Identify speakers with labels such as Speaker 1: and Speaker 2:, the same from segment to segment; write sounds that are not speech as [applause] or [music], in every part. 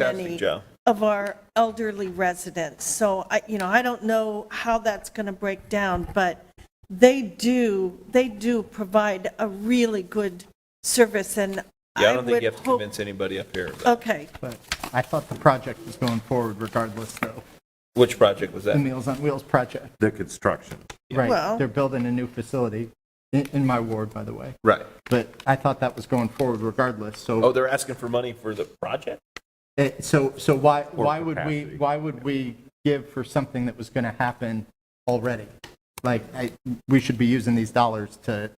Speaker 1: many
Speaker 2: Joe.
Speaker 1: of our elderly residents. So I, you know, I don't know how that's going to break down, but they do, they do provide a really good service and
Speaker 2: Yeah, I
Speaker 1: I
Speaker 2: don't think
Speaker 1: would
Speaker 2: you have to
Speaker 1: hope.
Speaker 2: convince anybody up here. of that.
Speaker 1: Okay,
Speaker 3: But I thought the project was going forward regardless, though.
Speaker 2: Which project was
Speaker 3: The
Speaker 2: that?
Speaker 3: Meals on Wheels project,
Speaker 4: The construction.
Speaker 1: Well-
Speaker 3: right? They're building a new facility in, in my ward, by the way.
Speaker 2: Right.
Speaker 3: But I thought that was going forward regardless,
Speaker 2: Oh,
Speaker 3: so,
Speaker 2: they're asking for money for the project?
Speaker 3: eh, so, so why,
Speaker 4: Or
Speaker 3: why would we,
Speaker 4: capacity.
Speaker 3: why would we give for something that was going to happen already? Like, I, we should be using these dollars to,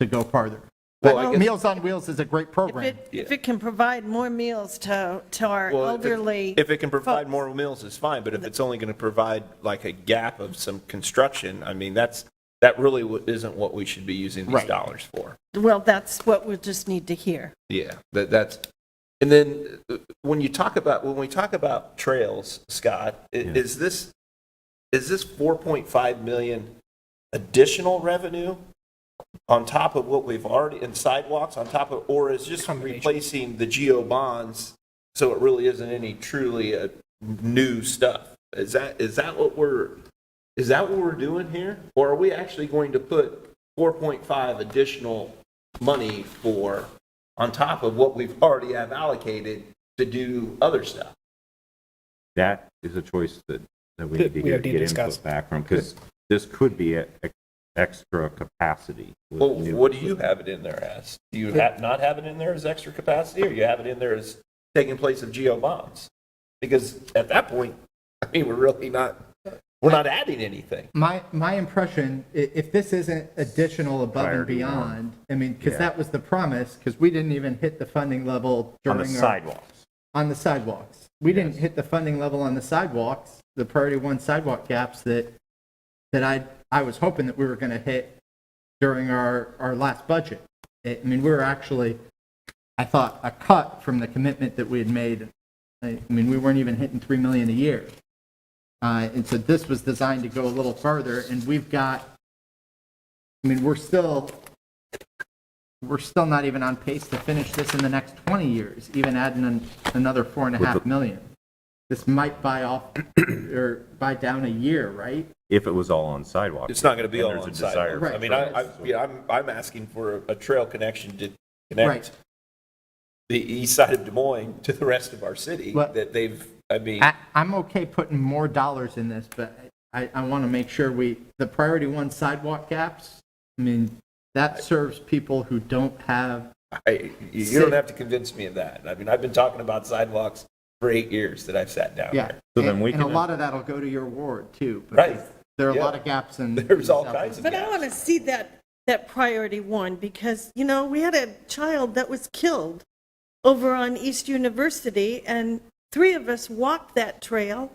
Speaker 3: to go farther.
Speaker 2: Well, I
Speaker 3: But
Speaker 2: guess-
Speaker 3: Meals on Wheels is a great
Speaker 1: if
Speaker 3: program.
Speaker 1: it, if it can provide more meals to, to our
Speaker 2: Well, if-
Speaker 1: elderly.
Speaker 2: If it can provide
Speaker 1: folks.
Speaker 2: more meals, it's fine, but if it's only going to provide like a gap of some construction, I mean, that's, that really wa- isn't what we should be using these
Speaker 3: Right.
Speaker 2: dollars for.
Speaker 1: Well, that's what we'll just need to hear.
Speaker 2: Yeah, that, that's, and then uh, when you talk about, when we talk about trails, Scott, i- is this, is this 4.5 million additional revenue on top of what we've already, in sidewalks on top of, or is just replacing the geo bonds? So it really isn't any truly uh, new stuff? Is that, is that what we're, is that what we're doing here? Or are we actually going to put 4.5 additional money for, on top of what we've already have allocated to do other stuff?
Speaker 4: That is a choice that, that we
Speaker 5: That
Speaker 4: need to
Speaker 5: we
Speaker 4: get
Speaker 5: have to
Speaker 4: get
Speaker 5: discuss.
Speaker 4: input back from, because this could be a- a extra capacity. with
Speaker 2: Well,
Speaker 4: new-
Speaker 2: what do you have it in there as? Do you ha not have it in there as extra capacity, or you have it in there as taking place of geo bonds? Because at that point, [laughs] I mean, we're really not, we're not adding anything.
Speaker 3: My, my impression, i- if this isn't additional above and
Speaker 4: Priority one.
Speaker 3: beyond, I mean, because
Speaker 4: Yeah.
Speaker 3: that was the promise, because we didn't even hit the funding level
Speaker 4: On
Speaker 3: during
Speaker 4: the
Speaker 3: our-
Speaker 4: sidewalks.
Speaker 3: On the sidewalks. We didn't hit the funding level on the sidewalks, the priority one sidewalk gaps that, that I, I was hoping that we were going to hit during our, our last budget. I I mean, we were actually, I thought, a cut from the commitment that we had made. I I mean, we weren't even hitting 3 million a year. Uh, And so this was designed to go a little further, and we've got, I mean, we're still, we're still not even on pace to finish this in the next 20 years, even adding an- another four and a half million. This might buy off, or buy down a year, right?
Speaker 4: If it was all on sidewalks.
Speaker 2: It's not gonna be
Speaker 4: and
Speaker 2: all
Speaker 4: there's a
Speaker 2: on
Speaker 4: desire
Speaker 2: sidewalks.
Speaker 3: Right.
Speaker 2: I
Speaker 4: for
Speaker 2: mean, I, I,
Speaker 4: us.
Speaker 2: yeah, I'm, I'm asking for a- a trail connection to
Speaker 3: Right.
Speaker 2: connect the east side of Des Moines to the rest of our city,
Speaker 3: Well-
Speaker 2: that they've, I mean,
Speaker 3: I, I'm okay putting more dollars in this, but I, I want to make sure we, the priority one sidewalk gaps, I mean, that serves people who don't have,
Speaker 2: I, you you don't have to convince me of that. I mean, I've been talking about sidewalks for eight years that I've sat down
Speaker 3: yeah.
Speaker 2: there.
Speaker 4: So then
Speaker 3: And-
Speaker 4: we
Speaker 3: And a
Speaker 4: can-
Speaker 3: lot of that'll go to your ward too.
Speaker 2: Right.
Speaker 3: because There are a
Speaker 2: Yeah.
Speaker 3: lot of gaps in.
Speaker 2: There's all kinds of
Speaker 1: But I want to
Speaker 2: gaps.
Speaker 1: see that, that priority one, because, you know, we had a child that was killed over on East University, and three of us walked that trail,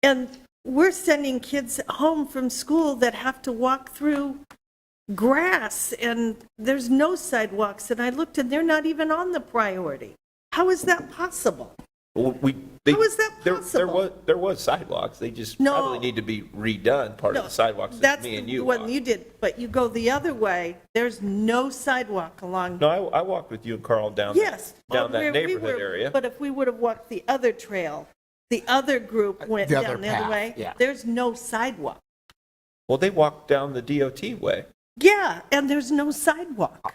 Speaker 1: and we're sending kids home from school that have to walk through grass, and there's no sidewalks, and I looked, and they're not even on the priority. How is that possible?
Speaker 2: Well, We, they,
Speaker 1: How is that
Speaker 2: there, there
Speaker 1: possible?
Speaker 2: was, there was sidewalks. They just
Speaker 1: No.
Speaker 2: probably need to be redone, part of
Speaker 1: No,
Speaker 2: the sidewalks that
Speaker 1: That's
Speaker 2: me and
Speaker 1: the
Speaker 2: you
Speaker 1: one
Speaker 2: walked.
Speaker 1: you did, but you go the other way, there's no sidewalk along
Speaker 2: No, I, I walked with you and Carl down. that-
Speaker 1: Yes.
Speaker 2: Down
Speaker 1: where
Speaker 2: that
Speaker 1: we
Speaker 2: neighborhood
Speaker 1: were-
Speaker 2: area.
Speaker 1: But if we would have walked the other trail, the other group went
Speaker 5: Uh, The other
Speaker 1: down the other
Speaker 5: path,
Speaker 1: way.
Speaker 5: yeah.
Speaker 1: There's no sidewalk.
Speaker 2: Well, they walked down the DOT way
Speaker 1: Yeah, and there's no sidewalk.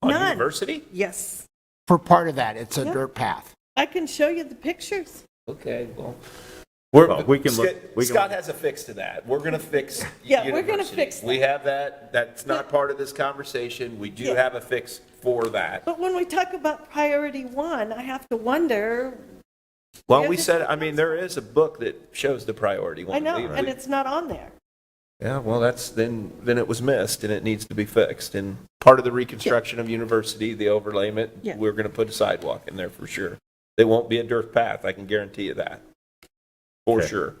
Speaker 2: on
Speaker 1: None.
Speaker 2: University.
Speaker 1: Yes.
Speaker 5: For part of that, it's a
Speaker 1: Yeah.
Speaker 5: dirt path.
Speaker 1: I can show you the pictures.
Speaker 2: Okay, well.
Speaker 4: Well, we can look-
Speaker 2: Uh, Scott-
Speaker 4: we can
Speaker 2: Scott
Speaker 4: look-
Speaker 2: has a fix to that. We're going to fix.
Speaker 1: Yeah, we're gonna
Speaker 2: University.
Speaker 1: fix that.
Speaker 2: We have that. That's not part of this conversation. We do
Speaker 1: Yeah.
Speaker 2: have a fix for that.
Speaker 1: But when we talk about priority one, I have to wonder,
Speaker 2: Well,
Speaker 1: Yeah,
Speaker 2: we
Speaker 1: this
Speaker 2: said,
Speaker 1: is
Speaker 2: I mean, there is a book that shows the priority one.
Speaker 1: I know,
Speaker 2: We-
Speaker 1: and
Speaker 2: we-
Speaker 1: it's not on there.
Speaker 2: Yeah, well, that's, then, then it was missed and it needs to be fixed. And part of the reconstruction of university, the
Speaker 1: Yeah.
Speaker 2: overlayment, we're going to put a sidewalk in there for sure. There won't be a dirt path, I can guarantee you that, for
Speaker 4: Okay.
Speaker 2: sure.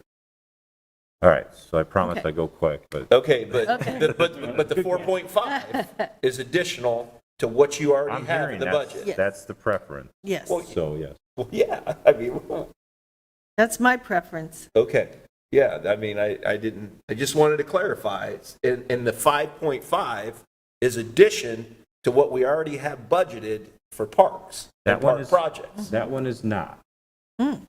Speaker 4: All right, so I promise
Speaker 1: Okay.
Speaker 4: I go quick, but
Speaker 2: Okay, but, but, but but the
Speaker 1: [laughs]
Speaker 2: 4.5 is additional to what you already
Speaker 4: I'm
Speaker 2: have in
Speaker 4: hearing
Speaker 2: the budget.
Speaker 4: that's, that's the preference,
Speaker 1: Yes,
Speaker 2: Well,
Speaker 4: so yes.
Speaker 2: [laughs] Well, Yeah, I mean, [laughs]
Speaker 1: that's my preference.
Speaker 2: Okay, yeah, I mean, I, I didn't, I just wanted to clarify, It's- and, and the 5.5 is addition to what we already have budgeted for parks
Speaker 4: That
Speaker 2: and
Speaker 4: one
Speaker 2: park
Speaker 4: is-
Speaker 2: projects.
Speaker 4: That one is not.
Speaker 1: Hmm.